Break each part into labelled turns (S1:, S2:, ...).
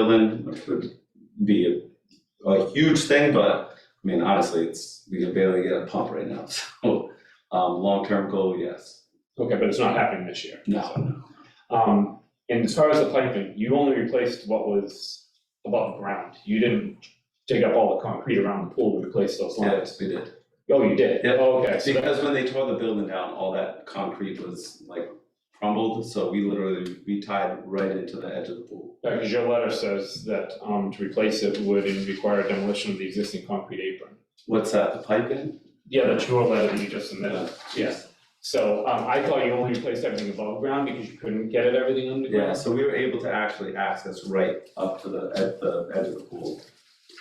S1: building, which would be a, a huge thing, but, I mean, honestly, it's, we can barely get a pump right now, so, um, long-term goal, yes.
S2: Okay, but it's not happening this year.
S1: No,
S2: Um, and as far as the piping, you only replaced what was above ground. You didn't dig up all the concrete around the pool to replace those lines.
S1: yes, we did.
S2: Oh, you did?
S1: Yep.
S2: Oh, Okay, so that-
S1: Because when they tore the building down, all that concrete was like crumbled, so we literally, we tied right into the edge of the pool.
S2: because uh, your letter says that, um, to replace it would require demolition of the existing concrete apron.
S1: What's that, the pipe in?
S2: Yeah, that's your letter that you just submitted.
S1: Yes.
S2: So, um, I thought you only replaced everything above ground because you couldn't get it everything
S1: Yeah,
S2: underground?
S1: so we were able to actually access right up to the, at the edge of the pool,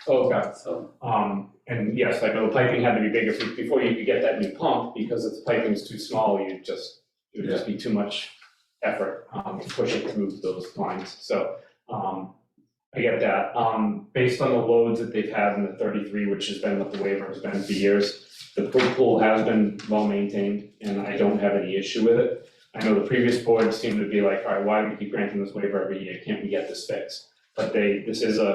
S2: Okay.
S1: so,
S2: Um, and yes, I know the piping had to be bigger for- before you could get that new pump, because if the piping was too small, you'd just, it would just be too much effort, um, to push it through those lines, so, um, I get that. Um, based on the loads that they've had in the thirty-three, which has been what the waiver has been for years, the pool pool has been well maintained, and I don't have any issue with it. I know the previous board seemed to be like, all right, why do we keep granting this waiver every year, can't we get this fixed? But they, this is a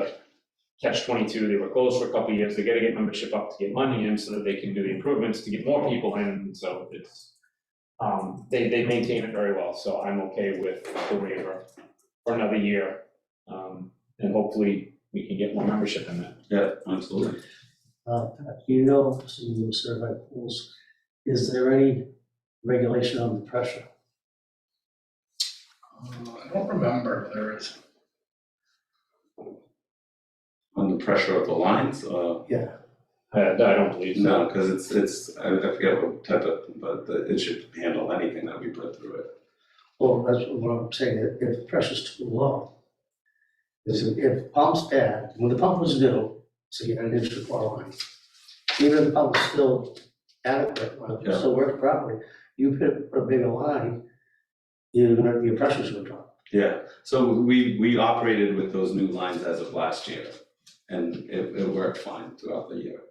S2: catch twenty-two, they were closed for a couple of years, they gotta get membership up to get money in so that they can do the improvements to get more people in, so it's. Um, they, they maintain it very well, so I'm okay with the waiver for another year. Um, and hopefully we can get more membership in that.
S1: yeah, absolutely.
S3: Uh, Pat, you know, some of the survey pools, is there any regulation on the pressure?
S4: Uh, I don't remember if there is.
S1: On the pressure of the lines, uh,
S2: Uh, I don't believe so.
S1: no, because it's, it's, I I forget what type of, but the- it should handle anything that we put through it.
S3: Well, that's what I'm saying, if- if the pressure's too low. Is if- if pump's bad, when the pump was new, so you had an inch of water line. Even if the pump was still adequate, like, it still worked properly, you put put a bigger line, you're gonna, your pressure's gonna drop.
S1: Yeah, so we, we operated with those new lines as of last year, and it, it worked fine throughout the year.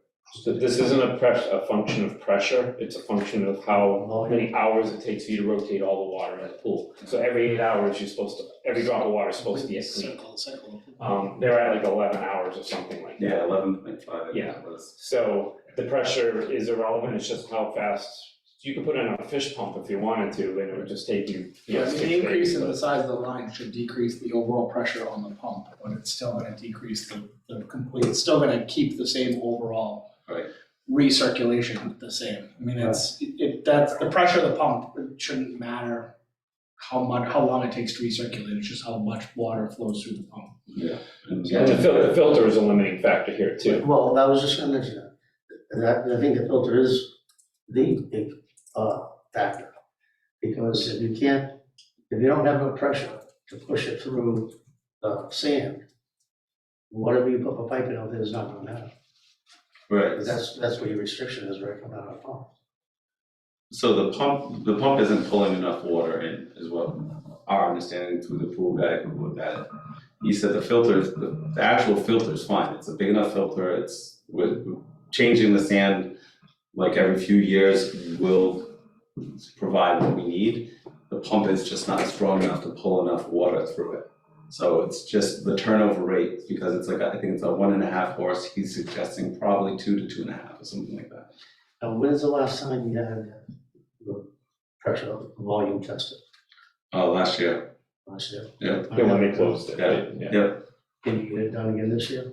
S2: So This isn't a press, a function of pressure, it's a function of how many hours it takes for you to rotate all the water in the pool. So every eight hours, you're supposed to, every drop of water is supposed to be a clean.
S4: Cycle, cycle.
S2: Um, they're at like eleven hours or something like that.
S1: Yeah, eleven point five, I think it was.
S2: So the pressure is irrelevant, it's just how fast, you could put in a fish pump if you wanted to, and it would just take you, you know,
S4: I mean,
S2: six
S4: the increase
S2: days,
S4: in
S2: but-
S4: the size of the line should decrease the overall pressure on the pump, but it's still gonna decrease the, the complete, it's still gonna keep the same overall.
S1: Right.
S4: Recirculation the same, I mean, it's, it- it, that's, the pressure of the pump, it shouldn't matter how much, how long it takes to recirculate, it's just how much water flows through the pump.
S1: And-
S2: And the fil- the filter is a limiting factor here too.
S3: Well, that was just gonna mention that, And I- I think the filter is the big, uh, factor. Because if you can't, if you don't have enough pressure to push it through, uh, sand, whatever you put a pipe in out there is not gonna matter,
S1: Right,
S3: because that's, that's where your restriction is right coming out of the pump.
S1: So the pump, the pump isn't pulling enough water in, is what our understanding through the pool guy who looked at it. He said the filter, is- the the actual filter is fine, it's a big enough filter, it's with changing the sand like every few years will provide what we need. The pump is just not strong enough to pull enough water through it. So it's just the turnover rate, because it's like, I think it's a one and a half horse, he's suggesting probably two to two and a half or something like that.
S3: Now, when's the last time you had the pressure of the volume tested?
S1: Uh, last year,
S3: Last year?
S1: Yeah.
S2: Yeah, when they closed it,
S1: Yeah.
S2: yeah.
S3: Can you get it done again this year?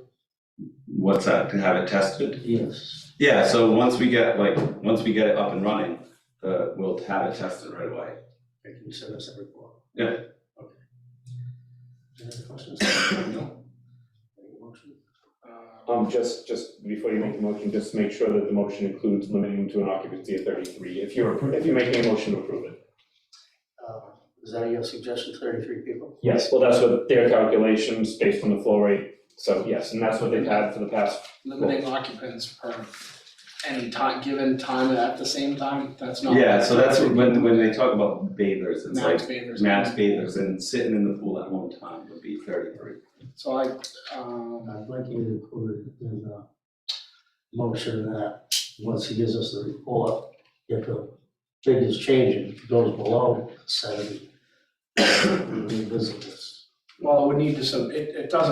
S1: What's that, to have it tested?
S3: Yes.
S1: Yeah, so once we get, like, once we get it up and running, uh, we'll have it tested right away.
S3: I can send us a report.
S1: Yeah.
S3: Okay. Any other questions?
S1: No.
S3: Make a motion?
S4: Uh,
S2: Um, just, just before you make the motion, just make sure that the motion includes limiting to an occupancy of thirty-three, if you're, appro- if you're making a motion to approve it.
S3: Uh, Is that your suggestion, thirty-three people?
S2: Yes, well, that's what their calculations based on the flow rate, so yes, and that's what they've had for the past,
S4: Limiting occupants per any time, given time at the same time, that's not.
S1: Yeah, so that's when, when they talk about bathers, it's
S4: Oh. Max
S1: like,
S4: Bathers.
S1: max bathers and sitting in the pool at one time would be thirty-three.
S4: So I, um.
S3: I'd like you to include in the motion that, once he gives us the report, if the figure's changing, if it goes below seventy, we revisit this.
S4: Well, we need to, sub- it, it doesn't